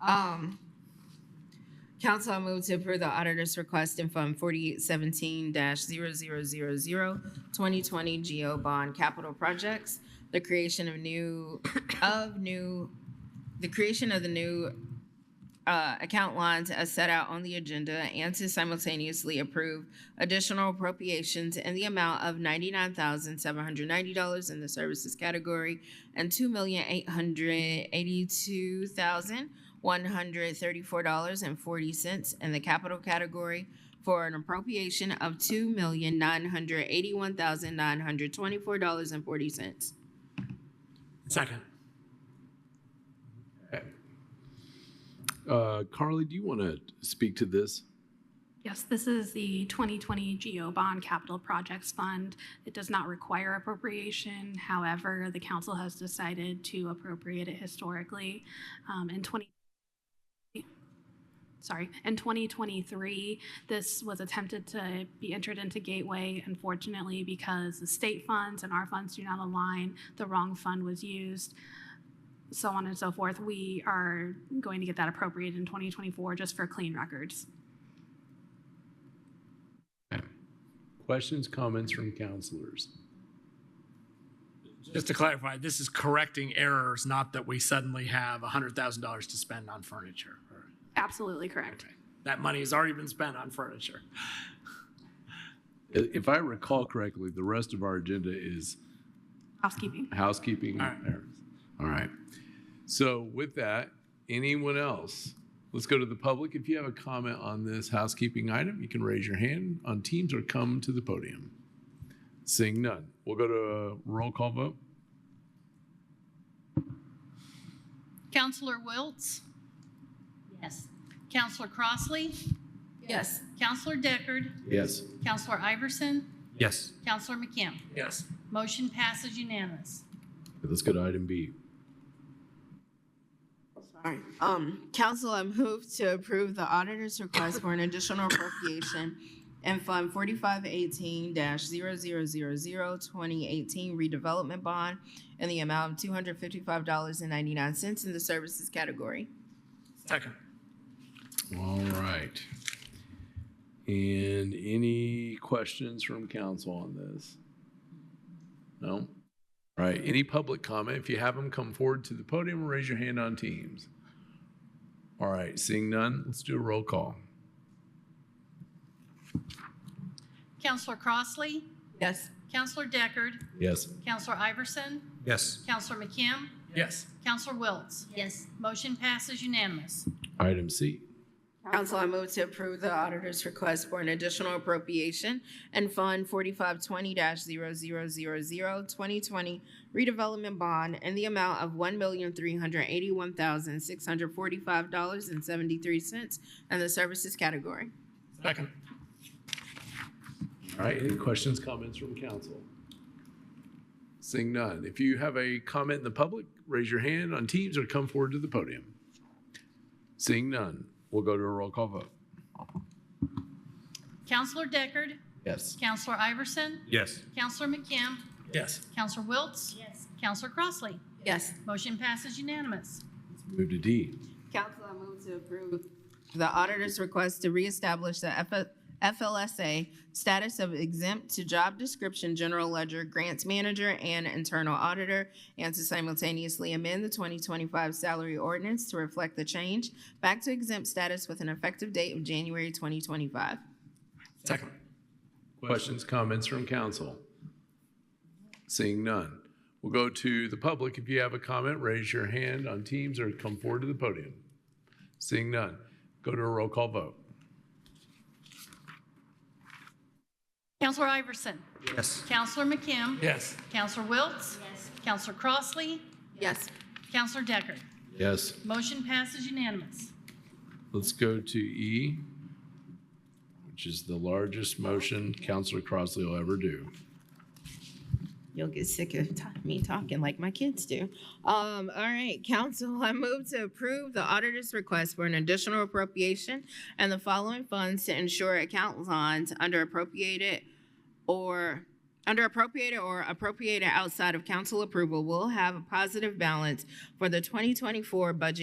Um, council, I move to approve the auditor's request in Fund forty-eight seventeen 2020 GO Bond Capital Projects, the creation of new, of new, the creation of the new uh, account lines as set out on the agenda and to simultaneously approve additional appropriations in the amount of ninety-nine thousand seven hundred ninety dollars in the services category and two million eight hundred eighty-two thousand one hundred thirty-four dollars and forty cents in the capital category for an appropriation of two million nine hundred eighty-one thousand nine hundred twenty-four dollars and forty cents. Second. Uh, Carly, do you want to speak to this? Yes, this is the 2020 GO Bond Capital Projects Fund. It does not require appropriation. However, the council has decided to appropriate it historically. Um, In 20, sorry, in 2023, this was attempted to be entered into Gateway. Unfortunately, because the state funds and our funds do not align, the wrong fund was used so on and so forth. We are going to get that appropriated in 2024 just for clean records. Questions, comments from counselors? Just to clarify, this is correcting errors, not that we suddenly have $100,000 to spend on furniture. or- Absolutely correct. Okay. That money has already been spent on furniture. I- If I recall correctly, the rest of our agenda is Housekeeping. housekeeping. All right. errands. All right. So with that, anyone else? Let's go to the public. If you have a comment on this housekeeping item, you can raise your hand on Teams or come to the podium. Seeing none, we'll go to a roll call vote. Counselor Wiltz? Yes. Counselor Crossley? Yes. Counselor Deckard? Yes. Counselor Iverson? Yes. Counselor McKim? Yes. Motion passes unanimous. Let's go to item B. All right. Um, council, I move to approve the auditor's request for an additional appropriation in Fund forty-five eighteen 2018 redevelopment bond in the amount of two hundred fifty-five dollars and ninety-nine cents in the services category. Second. All right. And any questions from council on this? No? All right, any public comment? If you have them, come forward to the podium or raise your hand on Teams. All right, seeing none, let's do a roll call. Counselor Crossley? Yes. Counselor Deckard? Yes. Counselor Iverson? Yes. Counselor McKim? Yes. Counselor Wiltz? Yes. Motion passes unanimous. Item C. Council, I move to approve the auditor's request for an additional appropriation and Fund forty-five twenty 2020 redevelopment bond in the amount of one million three hundred eighty-one thousand six hundred forty-five dollars and seventy-three cents in the services category. Second. All right, any questions, comments from council? Seeing none, if you have a comment in the public, raise your hand on Teams or come forward to the podium. Seeing none, we'll go to a roll call vote. Counselor Deckard? Yes. Counselor Iverson? Yes. Counselor McKim? Yes. Counselor Wiltz? Yes. Counselor Crossley? Yes. Motion passes unanimous. Move to D. Council, I move to approve the auditor's request to reestablish the F- FLSA status of exempt to job description, general ledger, grants manager, and internal auditor, and to simultaneously amend the 2025 salary ordinance to reflect the change back to exempt status with an effective date of January 2025. Second. Questions, comments from council? Seeing none. We'll go to the public. If you have a comment, raise your hand on Teams or come forward to the podium. Seeing none. Go to a roll call vote. Counselor Iverson? Yes. Counselor McKim? Yes. Counselor Wiltz? Yes. Counselor Crossley? Yes. Counselor Deckard? Yes. Motion passes unanimous. Let's go to E, which is the largest motion Councilor Crossley will ever do. You'll get sick of ta- me talking like my kids do. Um, all right, council, I move to approve the auditor's request for an additional appropriation and the following funds to ensure account lines under appropriated or under appropriated or appropriated outside of council approval will have a positive balance for the 2024 budget